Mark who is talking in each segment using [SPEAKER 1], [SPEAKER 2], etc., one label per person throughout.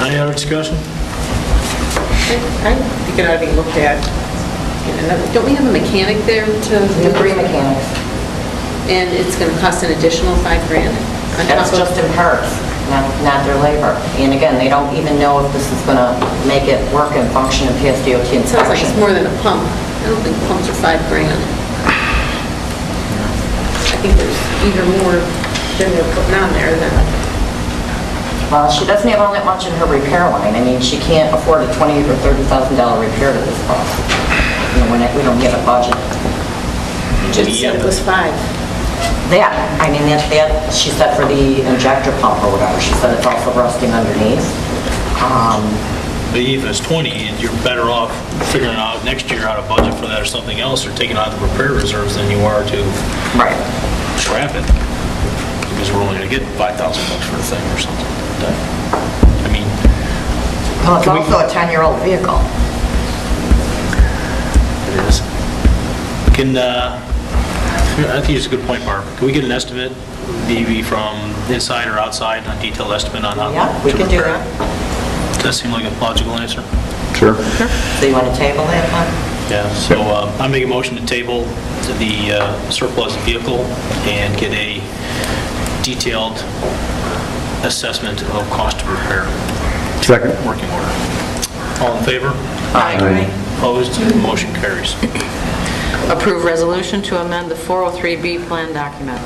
[SPEAKER 1] Any other discussion?
[SPEAKER 2] I think it ought to be looked at. in another- Don't we have a mechanic there
[SPEAKER 3] We
[SPEAKER 2] to,
[SPEAKER 3] have three mechanics.
[SPEAKER 2] and it's going to cost an additional five grand? on top
[SPEAKER 3] That's
[SPEAKER 2] of-
[SPEAKER 3] just in parts, not, not their labor. And again, they don't even know if this is going to make it work and function in PSDOT
[SPEAKER 2] It sounds like it's
[SPEAKER 3] inspection.
[SPEAKER 2] more than a pump. I don't think pumps are five grand. I think there's either more than they're putting on there than,
[SPEAKER 3] Well, she doesn't have all that much in her repair line. I mean, she can't afford a twenty or $30,000 repair to this cost. You know, we're not- we don't have a budget.
[SPEAKER 2] you just said it was five.
[SPEAKER 3] That, I mean, that, that, she said for the injector pump or whatever, she said it's also rusting underneath. Um,
[SPEAKER 1] But even if it's 20, and you're better off figuring out next year how to budget for that or something else, or taking out the repair reserves than you are to
[SPEAKER 3] Right.
[SPEAKER 1] scrap it, because we're only gonna get 5,000 bucks for the thing or something like that. I mean,
[SPEAKER 3] Well, it's also a 10-year-old vehicle.
[SPEAKER 1] it is. Can, uh, I think it's a good point, Barb. Can we get an estimate, maybe from inside or outside, a detailed estimate on how?
[SPEAKER 3] Yeah, we
[SPEAKER 1] to
[SPEAKER 3] can do
[SPEAKER 1] repair it?
[SPEAKER 3] that.
[SPEAKER 1] Does that seem like a logical answer?
[SPEAKER 4] Sure.
[SPEAKER 3] So you want to table that one?
[SPEAKER 1] Yeah, so uh, I make a motion to table the uh, surplus vehicle and get a detailed assessment of cost of repair,
[SPEAKER 4] Second.
[SPEAKER 1] working order. All in favor?
[SPEAKER 4] Aye.
[SPEAKER 1] Opposed? Motion carries.
[SPEAKER 5] Approve resolution to amend the 403B plan document.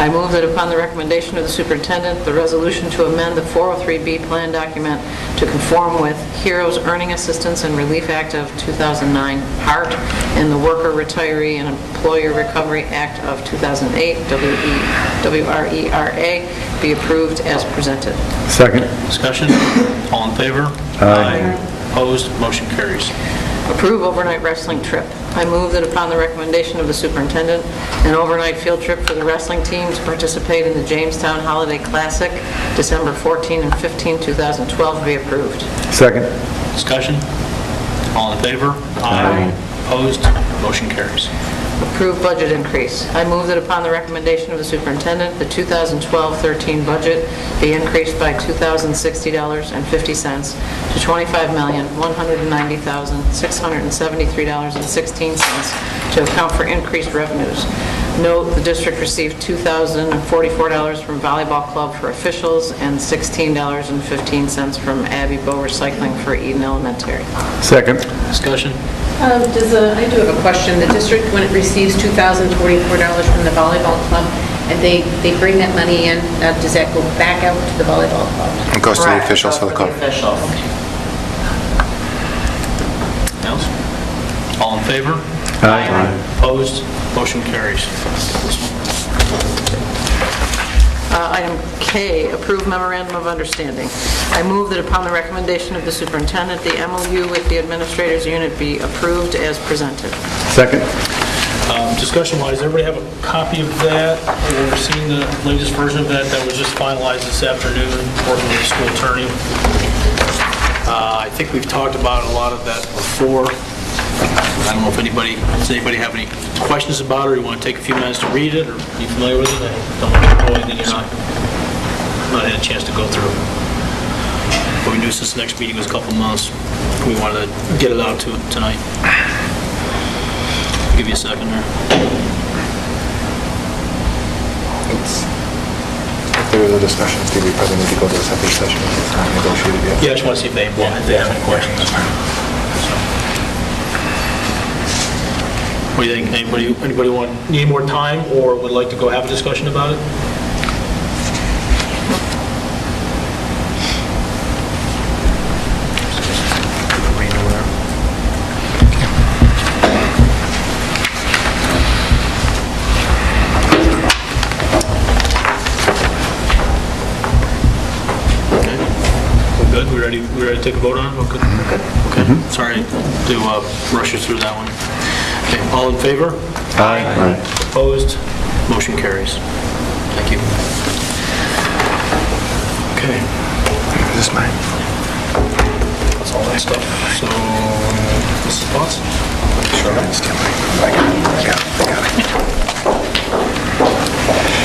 [SPEAKER 5] I move that upon the recommendation of the superintendent, the resolution to amend the 403B plan document to conform with Heroes Earning Assistance and Relief Act of 2009, HART, and the Worker Retiree and Employer Recovery Act of 2008, E WRERA, be approved as presented.
[SPEAKER 4] Second.
[SPEAKER 1] Discussion? All in favor? Opposed? Motion carries.
[SPEAKER 5] Approve overnight wrestling trip. I move that upon the recommendation of the superintendent, an overnight field trip for the wrestling team to participate in the Jamestown Holiday Classic, December 14 and 15, 2012, be approved.
[SPEAKER 4] Second.
[SPEAKER 1] Discussion? All in favor? Opposed? Motion carries.
[SPEAKER 5] Approve budget increase. I move that upon the recommendation of the superintendent, the 2012-13 budget be increased by $2,060.50 to $25,190,673.16 to account for increased revenues. Note, the district received $2,044 from volleyball club for officials and $16.15 from Abbey Bow Recycling for Eden Elementary.
[SPEAKER 4] Second.
[SPEAKER 1] Discussion?
[SPEAKER 2] Um, Does, the- I do have a question. The district, when it receives $2,044 from the volleyball club, and they, they bring that money in, now does that go back out to the volleyball club?
[SPEAKER 6] It goes to the
[SPEAKER 3] Correct,
[SPEAKER 6] officials for
[SPEAKER 3] goes
[SPEAKER 6] the
[SPEAKER 3] to
[SPEAKER 6] club.
[SPEAKER 3] officials.
[SPEAKER 1] Else? All in favor?
[SPEAKER 4] Aye.
[SPEAKER 1] Opposed? Motion carries.
[SPEAKER 5] Uh, Item K, approve memorandum of understanding. I move that upon the recommendation of the superintendent, the MOU with the administrators unit be approved as presented.
[SPEAKER 4] Second.
[SPEAKER 1] Um, Discussion-wise, everybody have a copy of that, or seen the latest version of that that was just finalized this afternoon, working with the school attorney? Uh, I think we've talked about a lot of that before. I don't know if anybody, does anybody have any questions about it, or you want to take a few minutes to read it, or are you familiar with it? I don't want to go anything you're not, not had a chance to go through. But we knew since the next meeting was a couple months, we wanted to get it out to tonight. Give you a second here.
[SPEAKER 6] If there is a discussion, Steve, we probably need to go to a separate session. It's not negotiated yet.
[SPEAKER 1] Yeah, I just want to see if they, if they have any questions. What do you think, anybody, anybody want, need more time, or would like to go have a discussion about it? Read over there. Okay. We're good, we ready, we ready to take a vote on it? Okay. Okay, sorry to uh, rush you through that one. Okay, all in favor?
[SPEAKER 4] Aye.
[SPEAKER 1] Opposed? Motion carries. Thank you. Okay,
[SPEAKER 6] Is this mine?
[SPEAKER 1] that's all that stuff. So, Mrs. Potts?
[SPEAKER 6] Sure. Stand by. I got it. I got it. I got it.